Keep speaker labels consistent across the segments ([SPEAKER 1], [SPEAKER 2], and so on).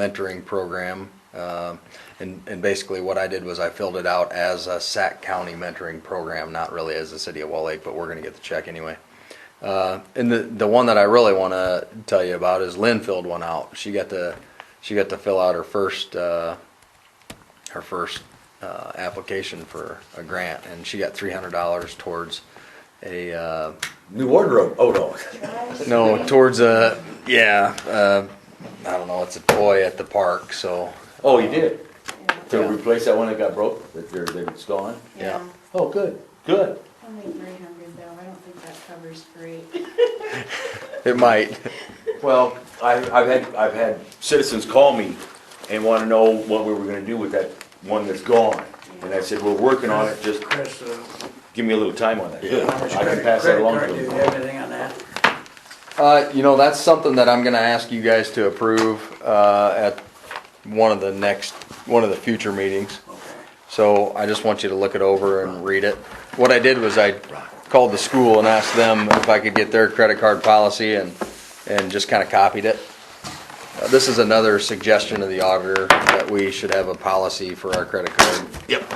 [SPEAKER 1] mentoring program. um, And, and basically what I did was I filled it out as a Sac County mentoring program, not really as the city of Wall Lake, but we're gonna get the check anyway. Uh, And the, the one that I really wanna tell you about is Lynn filled one out. She got to, she got to fill out her first, uh, her first uh, application for a grant, and she got three hundred dollars towards a, uh,
[SPEAKER 2] New wardrobe. Oh no.
[SPEAKER 1] no, towards a, yeah, uh, I don't know, it's a toy at the park, so,
[SPEAKER 2] Oh, you did. To
[SPEAKER 1] Yeah.
[SPEAKER 2] replace that one that got broke. That they're that it's gone.
[SPEAKER 1] Yeah.
[SPEAKER 3] Yeah,
[SPEAKER 2] Oh, good. Good.
[SPEAKER 3] only three hundred though, I don't think that covers freight.
[SPEAKER 1] it might.
[SPEAKER 2] Well, I, I've had I've had citizens call me and want to know what we were going to do with that one that's gone. And I said, we're working on it. Just
[SPEAKER 4] Chris, uh,
[SPEAKER 2] give me a little time on that. Good.
[SPEAKER 4] how much
[SPEAKER 2] I can
[SPEAKER 4] credit,
[SPEAKER 2] pass that
[SPEAKER 4] credit
[SPEAKER 2] along
[SPEAKER 4] card,
[SPEAKER 2] to
[SPEAKER 4] do you
[SPEAKER 2] them.
[SPEAKER 4] have anything on that?
[SPEAKER 1] Uh, you know, that's something that I'm gonna ask you guys to approve, uh, at one of the next, one of the future meetings. So I just want you to look it over and read it. What I did was I called the school and asked them if I could get their credit card policy and, and just kinda copied it. Uh, This is another suggestion of the auditor that we should have a policy for our credit card,
[SPEAKER 2] Yep.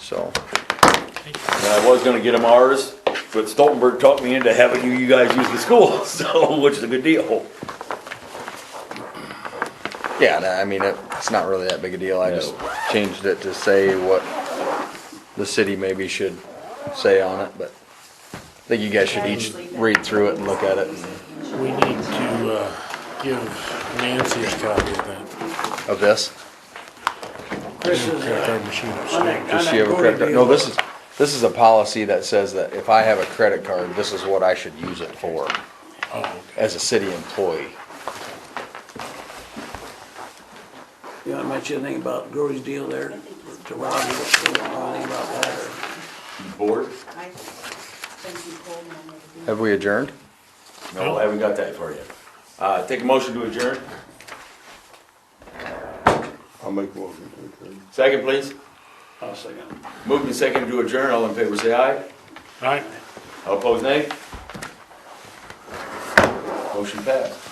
[SPEAKER 1] so.
[SPEAKER 2] And I was going to get them ours, but Stoltenberg talked me into having you, you guys use the school, so which is a good deal.
[SPEAKER 1] Yeah, no, I mean, it- it's not really that big a deal, I just
[SPEAKER 2] No.
[SPEAKER 1] changed it to say what the city maybe should say on it, but I think you guys should each read through it and look at it. and-
[SPEAKER 5] We need to uh, give Nancy a copy of that
[SPEAKER 1] Of this?
[SPEAKER 4] Chris is,
[SPEAKER 5] credit
[SPEAKER 4] uh,
[SPEAKER 5] card machine.
[SPEAKER 4] on that, on
[SPEAKER 1] Does she
[SPEAKER 4] that
[SPEAKER 1] have a
[SPEAKER 4] Goody
[SPEAKER 1] credit card?
[SPEAKER 4] deal.
[SPEAKER 1] No, this is, this is a policy that says that if I have a credit card, this is what I should use it for,
[SPEAKER 5] Oh, okay.
[SPEAKER 1] as a city employee.
[SPEAKER 4] You know, much anything about Gory's deal there, to Robbie, what's going on, anything about that, or?
[SPEAKER 2] Board?
[SPEAKER 3] I think you told me I'm gonna do
[SPEAKER 1] Have we adjourned?
[SPEAKER 2] No, I haven't got that for you. Uh, take a motion to adjourn.
[SPEAKER 6] I'll make a motion to adjourn.
[SPEAKER 2] Second, please.
[SPEAKER 4] I'll second.
[SPEAKER 2] Moved and seconded to adjourn, all in favor say aye.
[SPEAKER 5] All right.
[SPEAKER 2] All opposed nay. Motion passed.